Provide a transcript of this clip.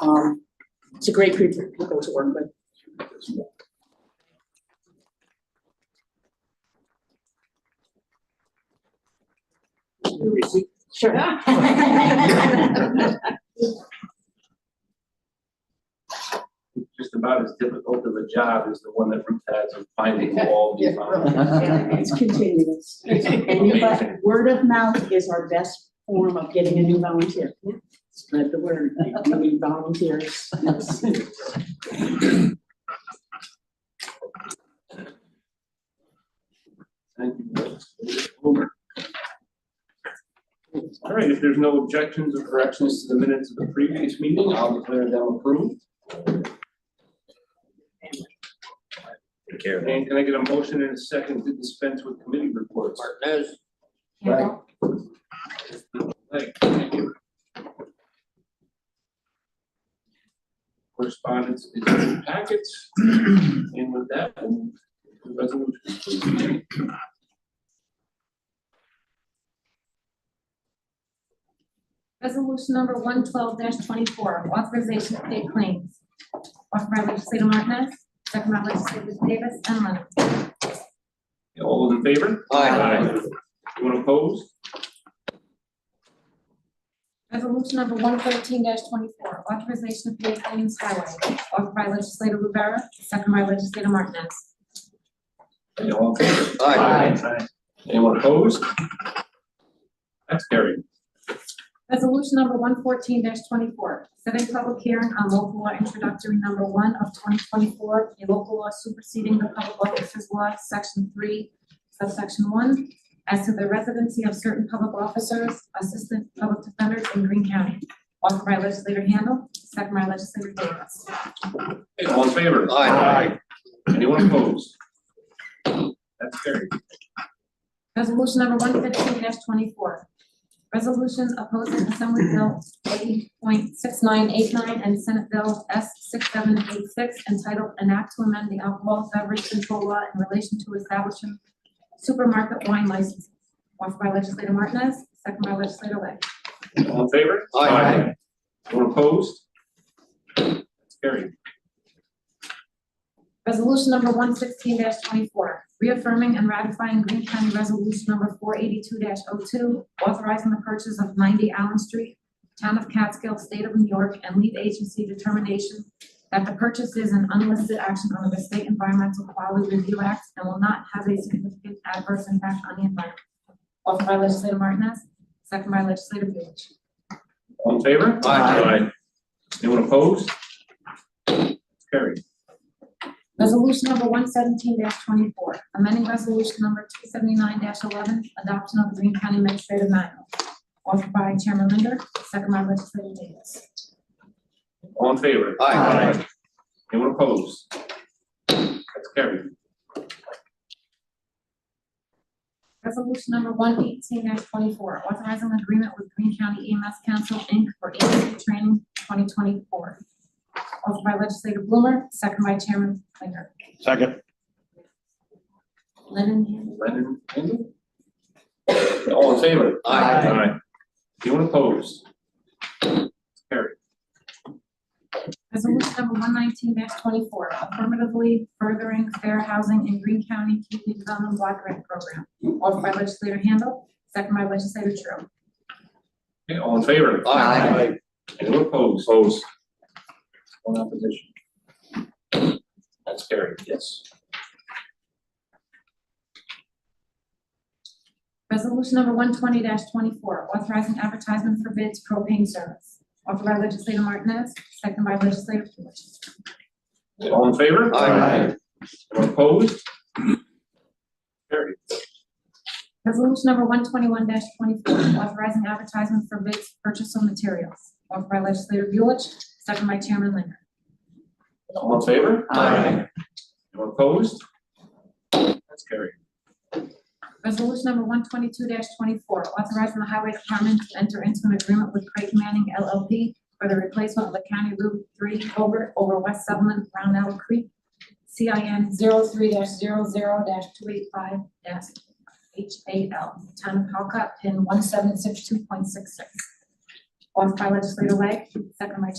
Um, it's a great group of people to work with. Sure. Just about as difficult of a job as the one that Ruth has of finding all the. It's continuous. And you, but word of mouth is our best form of getting a new volunteer. Spread the word, we need volunteers. Yes. Thank you. Over. All right, if there's no objections or corrections to the minutes of the previous meeting, I'll declare them approved. Take care of that. And can I get a motion and a second to dispense with committee reports? Martinez. Like, thank you. Correspondence is in the packets, and with that, we'll move to resolution. Resolution number one twelve twenty-four, authorization to pay claims. Offered by legislator Martinez, second by legislators Davis and Leonard. All those in favor? Aye. Anyone opposed? Resolution number one thirteen twenty-four, authorization to pay claims highway. Offered by legislator Rivera, second by legislator Martinez. Okay, All in favor? Aye. Anyone opposed? That's carried. Resolution number one fourteen twenty-four, setting public hearing on local law introductory number one of twenty twenty-four, a local law superseding the public officers law, section three, subsection one, as to the residency of certain public officers, assistant public defenders in Green County. Offered by legislator Handle, second by legislator Davis. Okay, All in favor? Aye. Anyone opposed? That's carried. Resolution number one fifteen twenty-four. Resolution opposing Assembly Bill eighty point six nine eight nine and Senate Bill S six seven eight six entitled An Act to Amend the Alcohol Beverage Control Law in Relation to Establishing Supermarket Wine Licenses. Offered by legislator Martinez, second by legislator Lang. All in favor? Aye. Anyone opposed? That's carried. Resolution number one sixteen twenty-four, reaffirming and ratifying Green County Resolution number four eighty-two 2 authorizing the purchase of ninety Allen Street, Town of Catskill, State of New York, and lead agency determination that the purchase is an unlisted action under the State Environmental Quality Review Act and will not have a significant adverse impact on the environment. Offered by legislator Martinez, second by legislator Lewis. All in favor? Aye. Anyone opposed? That's carried. Resolution number one seventeen twenty-four, amending resolution number two seventy-nine eleven, adoption of the Green County Administrative Manual. Offered by Chairman Linder, second by legislator Davis. All in favor? Aye. Anyone opposed? That's carried. Resolution number one eighteen twenty-four, authorizing an agreement with Green County EMS Council, Inc. for agency training twenty twenty-four. Offered by legislator Blumer, second by Chairman Linder. Second. Lennon, hand. Lennon, Handel? All in favor? Aye. Anyone opposed? Carried. Resolution number one nineteen twenty-four, affirmatively furthering fair housing in Green County Community Development Block Grant Program. Offered by legislator Handle, second by legislator Tru. Okay, all in favor? Aye. Anyone opposed? Opposed. One opposition. That's carried, yes. Resolution number one twenty twenty-four, authorizing advertisement for bids propane service. Offered by legislator Martinez, second by legislator Lewis. All in favor? Aye. Anyone opposed? Carried. Resolution number one twenty-one twenty-four, authorizing advertisement for bids purchase of materials. Offered by legislator Lewis, second by Chairman Linder. All in favor? Aye. Anyone opposed? That's carried. Resolution number one twenty-two twenty-four, authorizing the highway department to enter into an agreement with Craig Manning LLP for the replacement of the County Route three over, over West Sutherland, Brown Elk Creek, CIN 3 zero zero two eight five H A L, town of Halka, pin one seven six two point six six. Offered by legislator Lang, second by